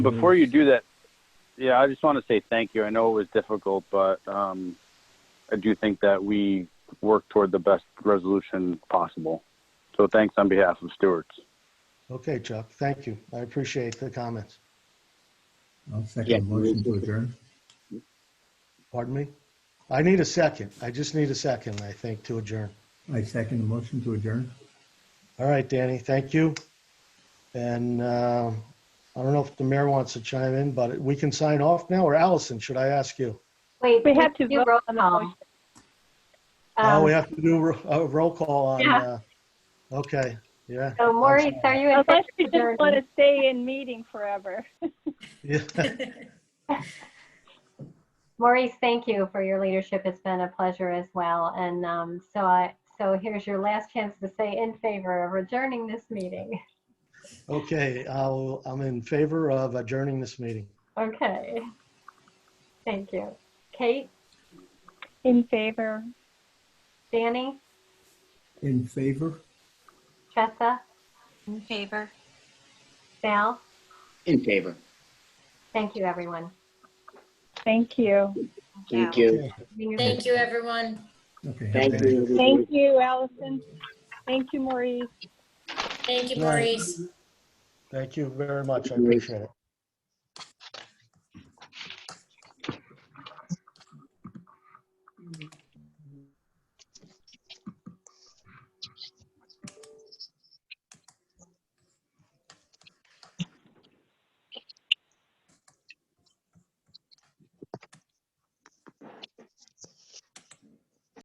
Before you do that, yeah, I just want to say thank you. I know it was difficult, but um, I do think that we worked toward the best resolution possible. So thanks on behalf of Stewart's. Okay, Chuck, thank you. I appreciate the comments. I'll Yeah. second the motion to adjourn. Pardon me? I need a second. I just need a second, I think, to adjourn. I second the motion to adjourn. All right, Danny, thank you. And uh, I don't know if the mayor wants to chime in, but we can sign off now, or Allison, should I ask you? Wait, We have to do vote roll on the call. motion. Oh, Um, we have to do ro- a roll call on, Yeah. uh, okay, yeah. So Maurice, are you in Unless favor you of just want adjourning? to stay in meeting forever. Yeah. Maurice, thank you for your leadership. It's been a pleasure as well. And um, so I, so here's your last chance to say in favor of adjourning this meeting. Okay, I'll, I'm in favor of adjourning this meeting. Okay. Thank you. Kate, In favor. Danny, In favor? Tressa, In favor. Sal, In favor. thank you, everyone. Thank you. Thank you. Meeting is Thank you, everyone. Okay. have a good Thank night. you. Thank you, Allison. Thank you, Maurice. Thank you, Right. Maurice. Thank you very much, I appreciate it.